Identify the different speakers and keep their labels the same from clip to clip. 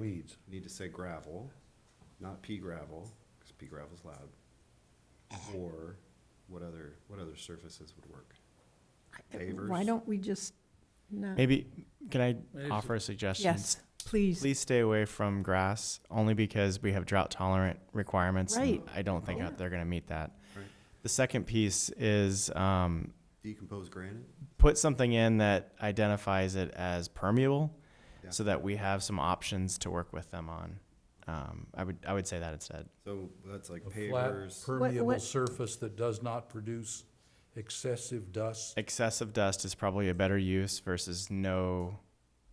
Speaker 1: weeds.
Speaker 2: Need to say gravel, not pea gravel, because pea gravel's loud.
Speaker 3: Uh-huh.
Speaker 2: Or what other, what other surfaces would work?
Speaker 3: Why
Speaker 2: Pavers?
Speaker 3: don't we just not?
Speaker 4: Maybe, can
Speaker 1: Maybe
Speaker 4: I offer a suggestion?
Speaker 3: Yes, please.
Speaker 4: Please stay away from grass, only because we have drought tolerant requirements. and
Speaker 3: Right.
Speaker 4: I don't think
Speaker 3: Yeah.
Speaker 4: they're gonna meet that.
Speaker 2: Right.
Speaker 4: The second piece is, um,
Speaker 2: Decomposed granite?
Speaker 4: put something in that identifies it as permeable,
Speaker 2: Yeah.
Speaker 4: so that we have some options to work with them on. Um, I would, I would say that instead.
Speaker 2: So that's like
Speaker 5: A flat
Speaker 2: pavers,
Speaker 5: permeable
Speaker 3: what-
Speaker 5: surface that does not produce excessive dust.
Speaker 4: Excessive dust is probably a better use versus no,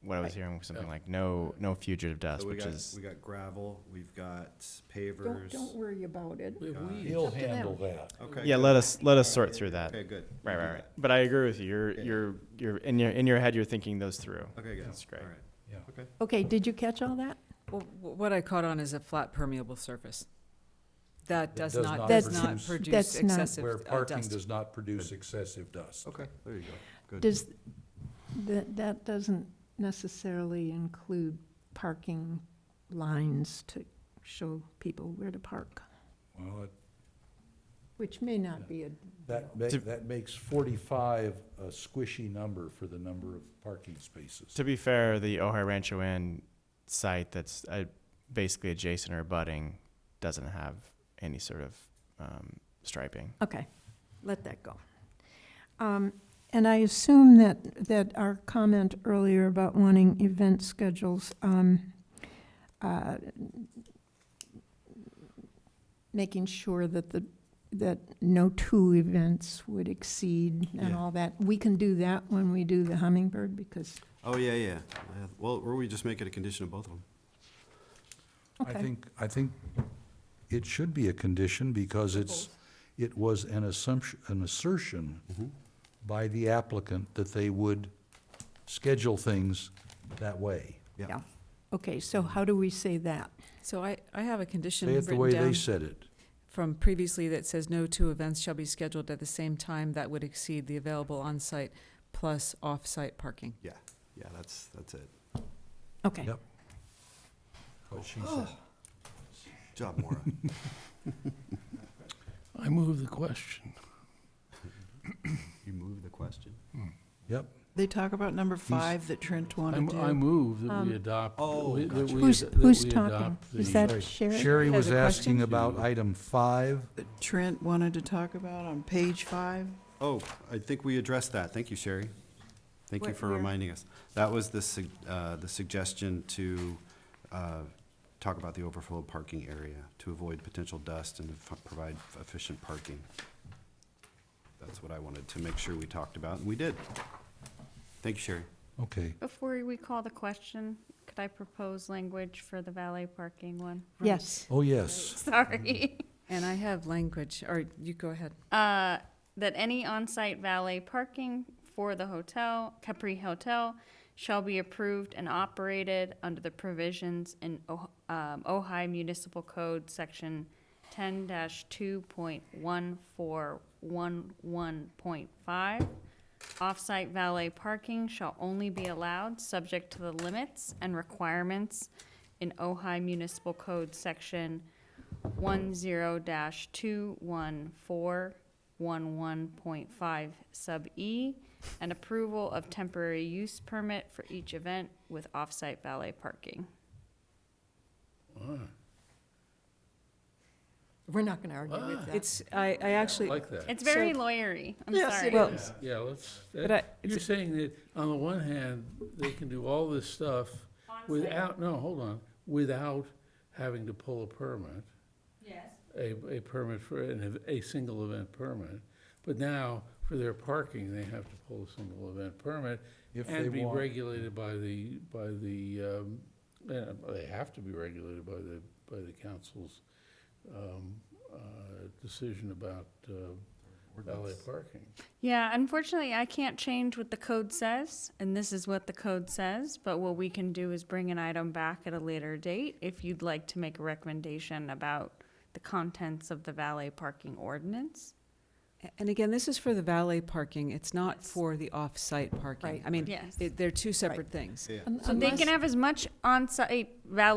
Speaker 4: what I was
Speaker 3: Right.
Speaker 4: hearing, was something
Speaker 5: Yeah.
Speaker 4: like no, no fugitive dust,
Speaker 2: so we
Speaker 4: which
Speaker 2: got,
Speaker 4: is,
Speaker 2: we got gravel, we've got
Speaker 3: Don't,
Speaker 2: pavers.
Speaker 3: don't worry about it.
Speaker 5: He'll
Speaker 3: It's up to them.
Speaker 5: handle that.
Speaker 2: Okay,
Speaker 4: yeah,
Speaker 2: good.
Speaker 4: let us, let us sort through that.
Speaker 2: Okay, good. We'll
Speaker 4: Right,
Speaker 2: do
Speaker 4: right, right. But I agree with you. You're,
Speaker 2: Yeah.
Speaker 4: you're, you're in your in your head. You're thinking those through.
Speaker 2: that. Okay, good.
Speaker 4: That's great.
Speaker 2: All right.
Speaker 5: Yeah.
Speaker 2: Okay.
Speaker 3: Okay, did you catch all that?
Speaker 6: Well, wh- what I caught on is a flat permeable surface. That does
Speaker 5: does
Speaker 6: not,
Speaker 5: not
Speaker 6: does not
Speaker 5: produce-
Speaker 6: produce
Speaker 3: That's not-
Speaker 6: excessive
Speaker 5: Where
Speaker 6: uh,
Speaker 5: parking
Speaker 6: dust.
Speaker 5: does not produce excessive dust.
Speaker 2: Okay, there you go. Good.
Speaker 3: Does, that, that doesn't necessarily include parking lines to show people where to park,
Speaker 5: Well, it-
Speaker 3: which may not be a,
Speaker 5: that, ma-
Speaker 4: To-
Speaker 5: that makes forty-five a squishy number for the number of parking spaces.
Speaker 4: To be fair, the Ojai Rancho Inn site that's uh, basically adjacent or budding doesn't have any sort of um, striping.
Speaker 3: okay, let that go. Um, And I assume that, that our comment earlier about wanting event schedules, um, uh, making sure that the, that no two events would exceed and
Speaker 2: Yeah.
Speaker 3: all that, we can do that when we do the hummingbird, because,
Speaker 2: Oh, yeah, yeah. Yeah, Well, or we just make it a condition of both of them.
Speaker 5: I
Speaker 3: okay.
Speaker 5: think, I think it should be a condition because it's, it was an assumption, an assertion by the applicant that they would schedule things that way.
Speaker 3: Yeah. Okay, so how do we say that?
Speaker 6: So I, I have a condition
Speaker 5: Say it the
Speaker 6: written
Speaker 5: way they
Speaker 6: down
Speaker 5: said it.
Speaker 6: from previously that says no two events shall be scheduled at the same time that would exceed the available on-site plus off-site parking.
Speaker 2: Yeah, yeah, that's, that's it.
Speaker 3: Okay,
Speaker 5: Yep. What she
Speaker 1: Oh,
Speaker 5: said.
Speaker 2: Good Job, Maura.
Speaker 1: I move the question.
Speaker 2: You moved the question.
Speaker 5: Yep.
Speaker 7: They talk about number five that Trent
Speaker 1: I
Speaker 7: wanted
Speaker 1: m- I
Speaker 7: to.
Speaker 1: move that
Speaker 3: Um,
Speaker 1: we adopt.
Speaker 2: Oh,
Speaker 1: we- that
Speaker 2: gotcha.
Speaker 1: we
Speaker 3: who's,
Speaker 1: ad- that
Speaker 3: who's
Speaker 1: we
Speaker 3: talking?
Speaker 1: adopt
Speaker 3: Is
Speaker 1: the-
Speaker 3: that Sherry?
Speaker 5: Sherry
Speaker 6: Has
Speaker 5: was
Speaker 6: a question?
Speaker 5: asking about item five.
Speaker 7: that Trent wanted to talk about on page five.
Speaker 2: Oh, I think we addressed that. Thank you, Sherry. Thank you
Speaker 3: Where-
Speaker 2: for
Speaker 3: where?
Speaker 2: reminding us. That was the, sug- uh, the suggestion to, uh, talk about the overflow parking area to avoid potential dust and f- provide efficient parking. That's what I wanted to make sure we talked about, and we did. Thank you, Sherry.
Speaker 5: Okay.
Speaker 8: Before we call the question, could I propose language for the valet parking one?
Speaker 3: Yes,
Speaker 5: Oh, yes.
Speaker 8: Sorry.
Speaker 6: And I have language, or you go ahead.
Speaker 8: Uh, That any on-site valet parking for the hotel, Capri Hotel, shall be approved and operated under the provisions in Oh- um, Ojai Municipal Code, Section ten two point one four one one point five. Off-site valet parking shall only be allowed, subject to the limits and requirements in Ojai Municipal Code, Section one zero dash two one four one one point five sub E, and approval of temporary use permit for each event with off-site valet parking.
Speaker 3: we're not going to argue
Speaker 1: Ah.
Speaker 3: with that.
Speaker 6: It's, I, I
Speaker 1: I
Speaker 6: actually,
Speaker 1: like that.
Speaker 8: It's very
Speaker 6: So-
Speaker 8: lawyery, I'm
Speaker 3: Yes,
Speaker 8: sorry.
Speaker 3: it
Speaker 6: well,
Speaker 1: Yeah, let's,
Speaker 6: but
Speaker 1: that-
Speaker 6: I,
Speaker 1: you're saying that on the one hand, they can do all this stuff without, no, hold on, without having to pull a permit.
Speaker 8: Yes.
Speaker 1: a, a permit for, an ev- a single event permit. But now, for their parking, they have to pull a single event permit
Speaker 5: If they
Speaker 1: and be
Speaker 5: want.
Speaker 1: regulated by the, by the, um, uh, they have to be regulated by the, by the council's um, uh, decision about uh, valet parking.
Speaker 8: Yeah, unfortunately, I can't change what the code says, and this is what the code says, but what we can do is bring an item back at a later date if you'd like to make a recommendation about the contents of the valet parking ordinance.
Speaker 6: and again, this is for the valet parking. It's not for the off-site parking.
Speaker 3: Right.
Speaker 6: I mean,
Speaker 8: Yes.
Speaker 6: it- they're two separate things.
Speaker 2: Yeah.
Speaker 3: Un-
Speaker 8: So they
Speaker 3: unless-
Speaker 8: can have as much on-site valet